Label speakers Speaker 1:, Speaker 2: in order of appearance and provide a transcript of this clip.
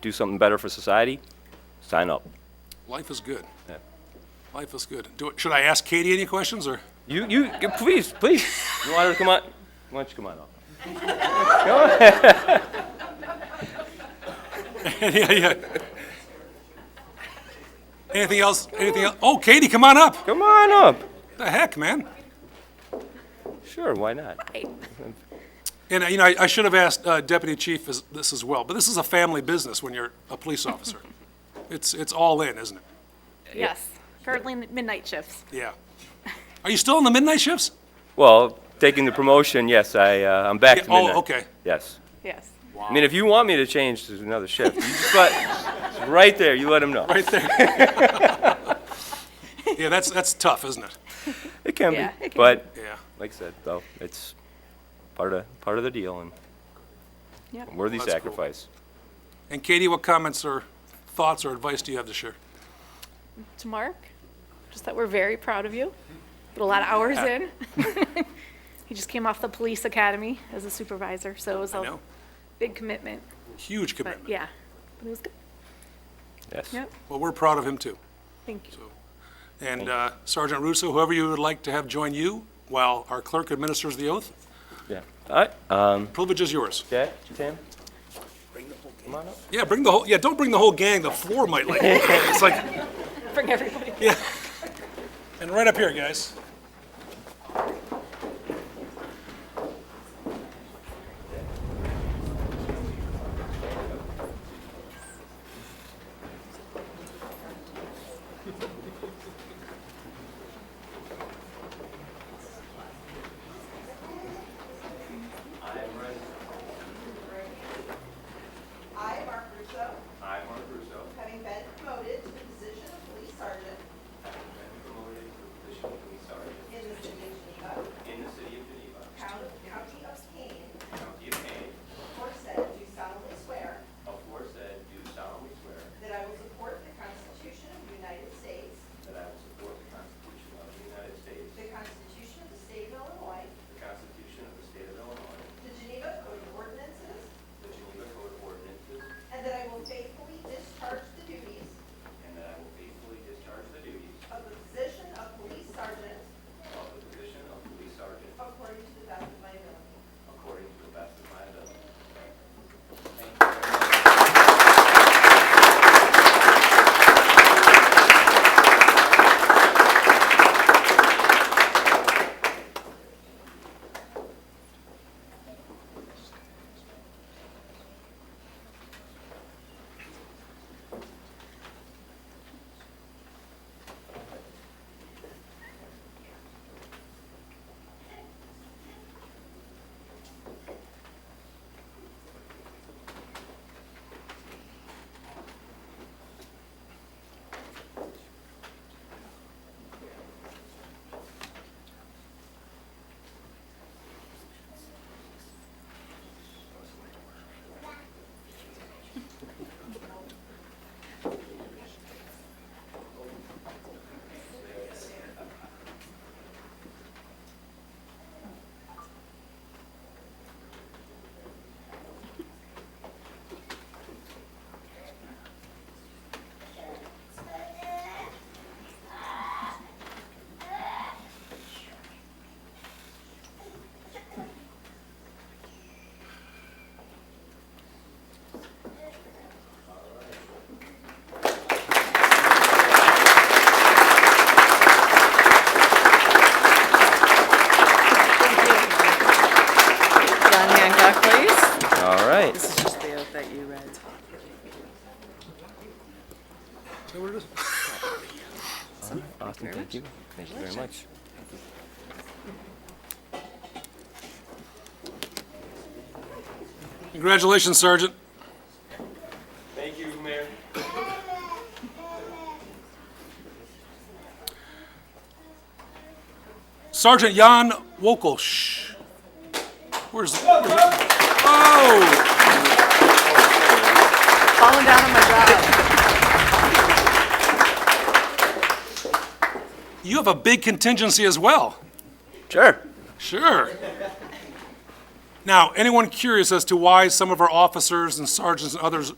Speaker 1: do something better for society, sign up.
Speaker 2: Life is good.
Speaker 1: Yeah.
Speaker 2: Life is good. Do, should I ask Katie any questions, or?
Speaker 1: You, you, please, please, you want her to come on? Why don't you come on up?
Speaker 2: Yeah, yeah. Anything else, anything else? Oh, Katie, come on up.
Speaker 1: Come on up.
Speaker 2: The heck, man?
Speaker 1: Sure, why not?
Speaker 2: And, uh, you know, I, I should have asked uh, Deputy Chief as- this as well, but this is a family business when you're a police officer. It's, it's all in, isn't it?
Speaker 3: Yes, currently in the midnight shifts.
Speaker 2: Yeah. Are you still in the midnight shifts?
Speaker 1: Well, taking the promotion, yes, I, uh, I'm back
Speaker 2: Yeah,
Speaker 1: to
Speaker 2: oh,
Speaker 1: midnight.
Speaker 2: okay.
Speaker 1: Yes.
Speaker 3: Yes.
Speaker 1: I mean, if you want me to change to another shift, you just let, right there, you let them know.
Speaker 2: Right there. Yeah, that's, that's tough, isn't it?
Speaker 1: It can
Speaker 3: Yeah, it
Speaker 1: be,
Speaker 3: can.
Speaker 1: but,
Speaker 2: Yeah.
Speaker 1: like I said, though, it's part of, part of the deal and
Speaker 3: Yeah.
Speaker 1: a worthy
Speaker 2: That's cool.
Speaker 1: sacrifice.
Speaker 2: And Katie, what comments or thoughts or advice do you have to share?
Speaker 3: To Mark, just that we're very proud of you. Put a lot of hours in. He just came off the police academy as a supervisor, so it was
Speaker 2: I
Speaker 3: a
Speaker 2: know,
Speaker 3: big commitment,
Speaker 2: huge
Speaker 3: but
Speaker 2: commitment.
Speaker 3: yeah. But it was good.
Speaker 1: Yes.
Speaker 3: Yep,
Speaker 2: Well, we're proud of him, too.
Speaker 3: thank you.
Speaker 2: And uh, Sergeant Russo, whoever you would like to have join you while our clerk administers the oath,
Speaker 1: Yeah. All right, uh,
Speaker 2: privilege is yours.
Speaker 1: Jack, Tim? Come on up.
Speaker 2: Yeah, bring the whole, yeah, don't bring the whole gang, the floor might like, it's like,
Speaker 3: Bring everybody.
Speaker 2: and right up here, guys.
Speaker 4: I, Mark Russo,
Speaker 1: I, Mark Russo,
Speaker 4: having been promoted to the position of police sergeant
Speaker 1: having been promoted to the position of police sergeant
Speaker 4: in the city of Geneva,
Speaker 1: in the city of Geneva,
Speaker 4: county county of Kane,
Speaker 1: county of Kane,
Speaker 4: aforesaid, do solemnly swear
Speaker 1: aforesaid, do solemnly swear
Speaker 4: that I will support the Constitution of the United States,
Speaker 1: that I will support the Constitution of the United States,
Speaker 4: the Constitution of the State of Illinois,
Speaker 1: the Constitution of the State of Illinois,
Speaker 4: the Geneva Code of Ordinances,
Speaker 1: the Geneva Code of Ordinances,
Speaker 4: and that I will faithfully discharge the duties
Speaker 1: and that I will faithfully discharge the duties
Speaker 4: of the position of police sergeant
Speaker 1: of the position of police sergeant
Speaker 4: according to the best of my ability.
Speaker 1: according to the best of my ability.
Speaker 5: John Hancock, please.
Speaker 1: All right.
Speaker 5: This is just the oath that you read.
Speaker 2: Is that what it is?
Speaker 1: Awesome, thank you. Thank you very much.
Speaker 2: Congratulations, Sergeant.
Speaker 1: Thank you, Mayor.
Speaker 2: Sergeant Jan Wokelsch. Where's, oh,
Speaker 5: Falling down on my job.
Speaker 2: you have a big contingency as well.
Speaker 1: Sure.
Speaker 2: Sure. Now, anyone curious as to why some of our officers and sergeants and others